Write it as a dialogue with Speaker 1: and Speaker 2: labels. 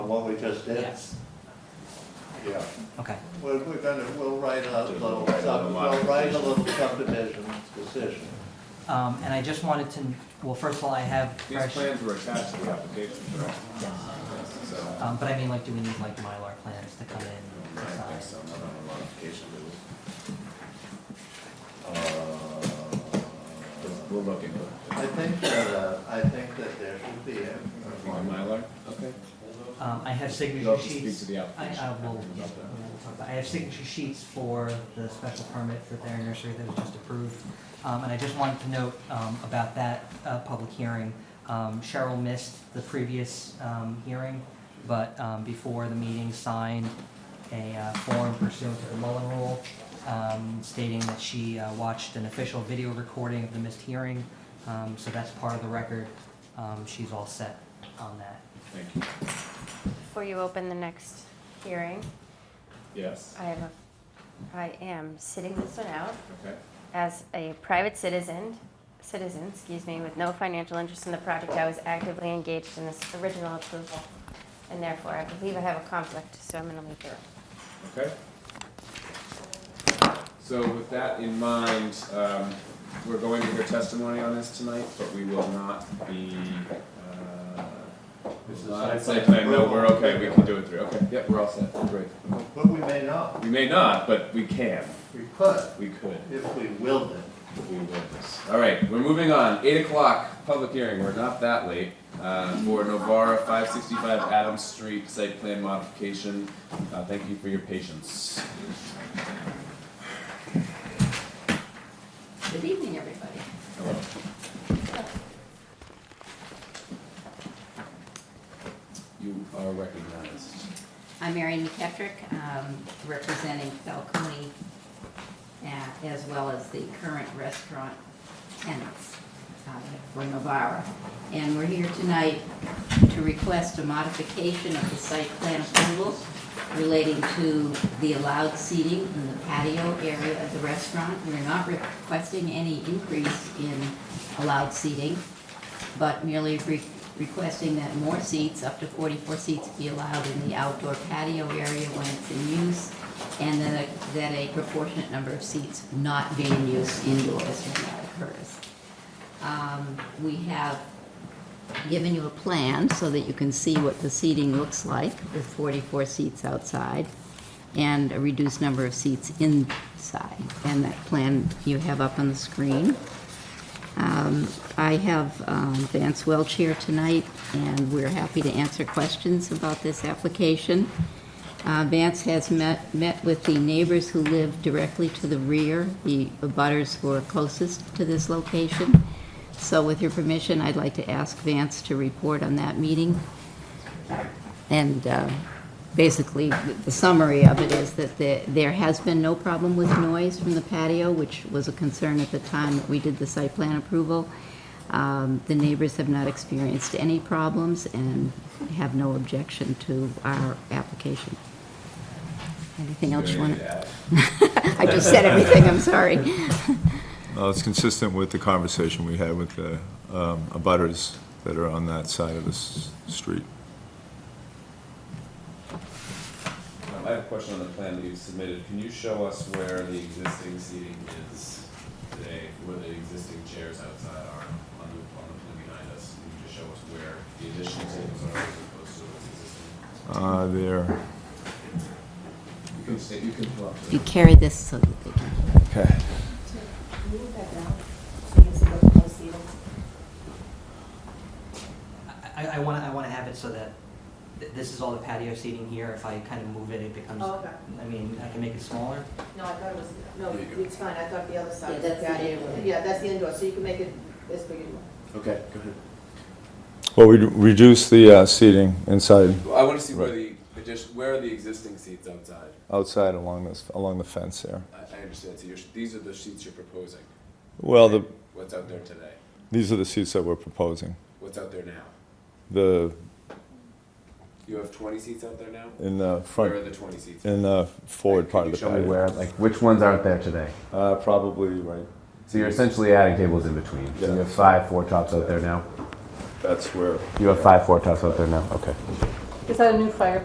Speaker 1: what we just did?
Speaker 2: Yes.
Speaker 1: Yeah.
Speaker 3: Okay,
Speaker 1: We're, we're gonna, we'll write a
Speaker 4: Mm-hmm. Just
Speaker 1: little,
Speaker 4: write a
Speaker 1: sub-
Speaker 4: little
Speaker 1: we'll write a
Speaker 4: modification.
Speaker 1: little subdivision decision.
Speaker 3: um, and I just wanted to, well, first of all, I have
Speaker 4: These
Speaker 3: fresh,
Speaker 4: plans were attached to the application, correct? So,
Speaker 3: um, but I mean, like, do we need like Mylar plans to come in?
Speaker 4: I
Speaker 3: to sign?
Speaker 4: think so, not on a modification, but
Speaker 1: Uh,
Speaker 4: we'll look into
Speaker 1: I
Speaker 4: it.
Speaker 1: think that, uh, I think that there should be a.
Speaker 4: On Mylar? Okay.
Speaker 3: Um, I have
Speaker 4: You'll
Speaker 3: signature
Speaker 4: have to speak to
Speaker 3: sheets.
Speaker 4: the
Speaker 3: I,
Speaker 4: application.
Speaker 3: I will,
Speaker 4: about
Speaker 3: yeah,
Speaker 4: that.
Speaker 3: we'll talk about, I have signature sheets for the special permit for Thayer Nursery that was just approved. Um, and I just wanted to note, um, about that, uh, public hearing. Um, Cheryl missed the previous, um, hearing, but, um, before the meeting signed a, uh, form pursuant to the Mullen Rule, um, stating that she, uh, watched an official video recording of the missed hearing. Um, so that's part of the record. Um, she's all set on that.
Speaker 4: Thank you.
Speaker 5: Before you open the next hearing,
Speaker 4: Yes,
Speaker 5: I have a, I am sitting this one out
Speaker 4: okay.
Speaker 5: as a private citizen, citizen, excuse me, with no financial interest in the project. I was actively engaged in this original approval, and therefore I believe I have a conflict, so I'm gonna leave the room.
Speaker 4: Okay. So with that in mind, um, we're going to hear testimony on this tonight, but we will not be, uh,
Speaker 1: This is
Speaker 4: not
Speaker 1: site
Speaker 4: site
Speaker 1: plan
Speaker 4: plan, no, we're
Speaker 1: approval.
Speaker 4: okay, we can do it through, okay, yep, we're all set, great.
Speaker 1: But we may not,
Speaker 4: We may not, but we can,
Speaker 1: we could,
Speaker 4: we could,
Speaker 1: if we willed it.
Speaker 4: we will this. All right, we're moving on, eight o'clock, public hearing, we're not that late, uh, for Novara five sixty-five Adams Street site plan modification. Uh, thank you for your patience.
Speaker 6: Good evening, everybody.
Speaker 4: Hello. You are recognized.
Speaker 6: I'm Mary McKetrick, um, representing Falcone, uh, as well as the current restaurant tenants uh, for Novara. And we're here tonight to request a modification of the site plan approval relating to the allowed seating in the patio area of the restaurant. We're not requesting any increase in allowed seating, but merely re- requesting that more seats, up to 44 seats, be allowed in the outdoor patio area when it's in use, and that a- that a proportionate number of seats not be in use indoors when that occurs. Um, We have given you a plan so that you can see what the seating looks like, with 44 seats outside and a reduced number of seats inside. And that plan you have up on the screen. Um, I have um, Vance Welch here tonight, and we're happy to answer questions about this application. Uh, Vance has met, met with the neighbors who live directly to the rear, the abutters who are closest to this location. So with your permission, I'd like to ask Vance to report on that meeting. And uh, basically, the the summary of it is that the- there has been no problem with noise from the patio, which was a concern at the time that we did the site plan approval. Um, The neighbors have not experienced any problems and have no objection to our application. Anything else you want to? I just said everything, I'm sorry.
Speaker 7: Uh, It's consistent with the conversation we had with the um, abutters that are on that side of the s- street.
Speaker 4: Um, I have a question on the plan that you submitted. Can you show us where the existing seating is today, where the existing chairs outside are on the, on the plan behind us? Can you just show us where the additional tables are as opposed to what's existing?
Speaker 7: Uh, There,
Speaker 4: You can stay, you can pull up.
Speaker 6: If you carry this so that they can.
Speaker 7: okay.
Speaker 8: Move that down, so it's a little closer.
Speaker 3: I, I wanna, I wanna have it so that th- this is all the patio seating here, if I kind of move it, it becomes,
Speaker 8: Oh, okay.
Speaker 3: I mean, I can make it smaller.
Speaker 8: No, I thought it was, no, it's fine, I thought the other side.
Speaker 6: Yeah,
Speaker 8: was
Speaker 6: that's the
Speaker 8: patio.
Speaker 6: indoor.
Speaker 8: Yeah, that's the indoor, so you can make it as big as you want.
Speaker 4: Okay, go ahead.
Speaker 7: Well, we reduced the uh, seating inside,
Speaker 4: I wanna see
Speaker 7: where
Speaker 4: where
Speaker 7: Right.
Speaker 4: the addition, where are the existing seats outside?
Speaker 7: outside along this, along the fence there.
Speaker 4: I, I understand, so you're, these are the seats you're proposing.
Speaker 7: Well, the,
Speaker 4: What's out there today?
Speaker 7: these are the seats that we're proposing.
Speaker 4: What's out there now?
Speaker 7: The,
Speaker 4: You have twenty seats out there now?
Speaker 7: in the
Speaker 4: Where are
Speaker 7: front,
Speaker 4: the twenty seats?
Speaker 7: in the forward part of the
Speaker 4: Show me
Speaker 7: patio.
Speaker 4: where, like, which ones aren't there today?
Speaker 7: Uh, Probably right,
Speaker 4: So you're essentially adding tables in between. So you
Speaker 7: Yeah.
Speaker 4: have five four tops out there now.
Speaker 7: that's where,
Speaker 4: You have five four tops out there now. Okay.
Speaker 8: Is that a new fire